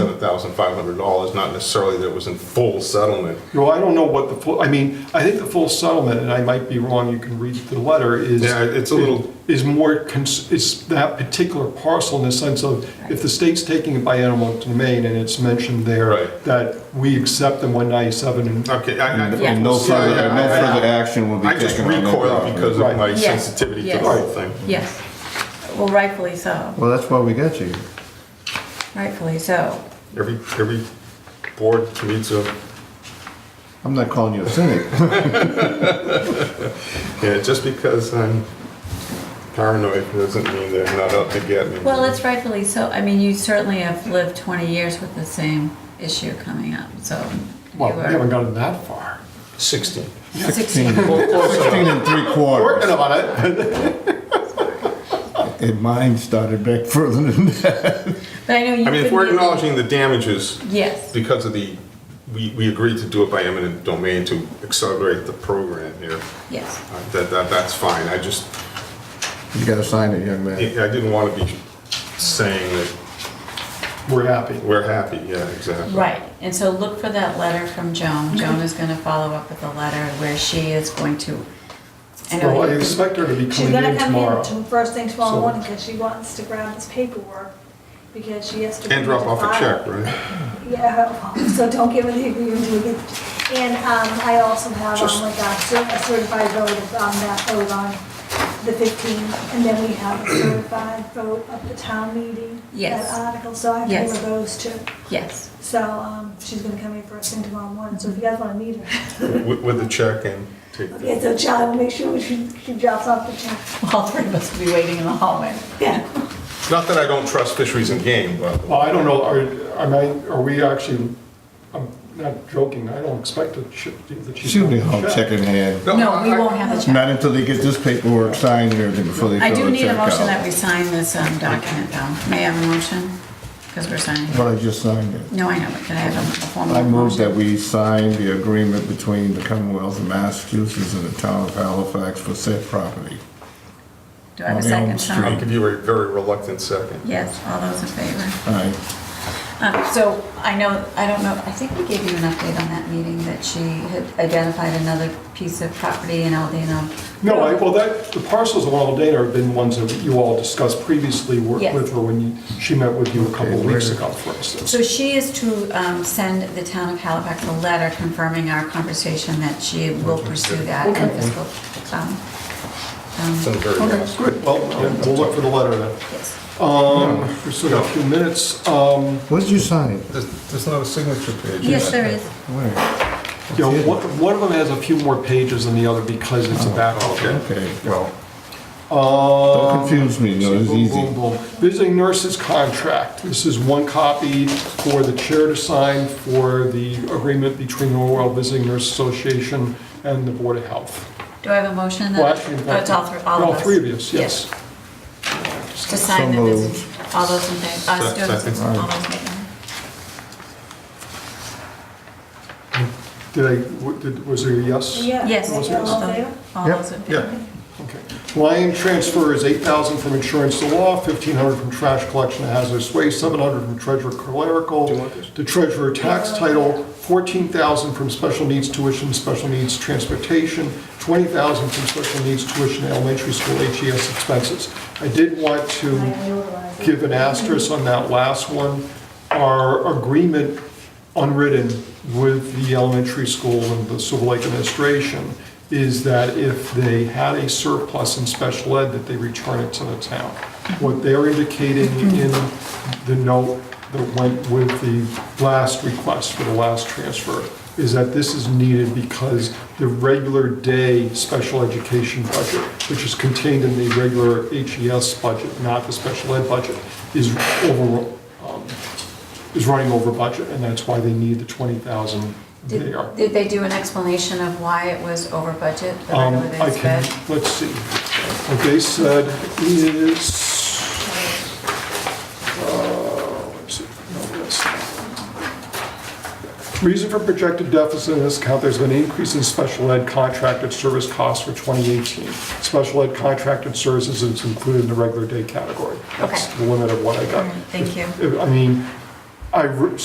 thousand five hundred dollars, not necessarily that it was in full settlement. Well, I don't know what the full, I mean, I think the full settlement, and I might be wrong, you can read the letter, is. Yeah, it's a little- Is more, cons- is that particular parcel in the sense of, if the state's taking it by animal domain and it's mentioned there, Right. that we accept the 197 and. Okay, I, I. Yeah. And no further, Yeah, no yeah, I- further action will be I taken. just on that recoiled property. because of my Right. Yes, sensitivity to the yes. whole thing. Yes. Well, rightfully so, Well, that's why we got you. rightfully so. Every, every board needs a, I'm not calling you a cynic. yeah, just because I'm paranoid doesn't mean they're not out to get me. Well, it's rightfully so. I mean, you certainly have lived 20 years with the same issue coming up, so. you Well, we haven't were gotten that far. Sixteen. 16. Sixteen and three quarters. Working on it. And mine started back further than that. But I know you. I mean, if couldn't we're even- acknowledging the damages Yes, because of the, we, we agreed to do it by eminent domain to accelerate the program here. yes. Uh, That, that, that's fine, I just, You gotta sign it, young I man. I didn't want to be saying that We're happy. we're happy, yeah, exactly. Right, and so look for that letter from Mm-hmm. Joan. Joan is going to follow up with a letter where she is going to. I know Well, I you- expect her to be She's coming gonna in come in tomorrow. to- first thing So- tomorrow morning, because she wants to grab this paperwork, because she has to. bring And it drop to off a file. check, right? Yeah, so don't give her the agreement to get, and, um, I also have Just- on like a cer- a certified vote of, um, that vote on the fifteenth, and then we have a certified vote of the town meeting. Yes. That article, so I have to Yes. give her those too. Yes, So, um, she's gonna come in first thing tomorrow morning, so if you guys wanna meet her. With, with the check and take Okay, the, so Charlie, will make sure she, she drops off the check. all three of us will be waiting in the hallway. Yeah. not that I don't trust fisheries and game, but. Well, I don't know, are, am I, are we actually, I'm not joking, I don't expect that she. that she's She'll be gonna home checking hand. No, we I- won't have a check. Not until they get this paperwork signed and everything before they I fill do the need a check motion that out. we sign this um, document, though. May I have a motion? Because we're signing. But I just signed it. No, I know, but can I have a formal I move motion? that we sign the agreement between the Commonwealth of Massachusetts and the town of Halifax for said property. Do I have a on second, Elm I'll Sean? give you a very reluctant second. Yes, all those in favor. All right. Um, So I know, I don't know, I think we gave you an update on that meeting that she had identified another piece of property in Aldino. No, I, well, that, the parcels of Aldana have been ones that you all discussed previously, worked Yes. with her when you, she met with you a couple of Okay, weeks where- ago, for instance. So she is to um, send the town of Halifax a letter confirming our conversation that she will pursue that in Okay. fiscal. um, It's in um, very Okay, good, well, yeah, we'll look for the letter then. yes. Um, we still got a few minutes, um, What did you sign? There's, there's not a signature page. Yes, there is. Where? you know, one, one of them has a few more pages than the other because it's a backup. Oh, Okay, well, don't Um, confuse me, no, it's Boom, boom, easy. boom. Visiting nurses contract. This is one copy for the chair to sign for the agreement between the Orwell Visiting Nurse Association and the Board of Health. Do I have a motion? that- Well, actually, Oh, it's all three, all of us. three of us, yes. To sign So that this, moved. all those in favor, uh, Se- students, second. all those in favor. Did I, w- did- was there a yes? Yeah. Yes. All those in All in favor? All Yep. those in favor. Okay. Line transfer is 8,000 from insurance to law, 1,500 from trash collection and hazardous waste, 700 from treasurer clerical Do you want this? to treasurer tax title, 14,000 from special needs tuition, special needs transportation, 20,000 from special needs tuition, elementary school HES expenses. I did want to give an asterisk on that last one. Our agreement unwritten with the elementary school and the Silver Lake administration is that if they had a surplus in special ed, that they return it to the town. What they're indicating in the note that went with the last request for the last transfer is that this is needed because the regular day special education budget, which is contained in the regular HES budget, not the special ed budget, is over, um, is running over budget, and that's why they need the 20,000 Did, there. did they do an explanation of why it was over budget? the Um, regular I days can, fed? let's see, what they said is, uh, let's see, no, that's not. Reason for projected deficit in this account, there's been an increase in special ed contracted service costs for 2018. Special ed contracted services is included in the regular day category. That's Okay. the limit of what I got. All right, thank you. If- I mean, I, re-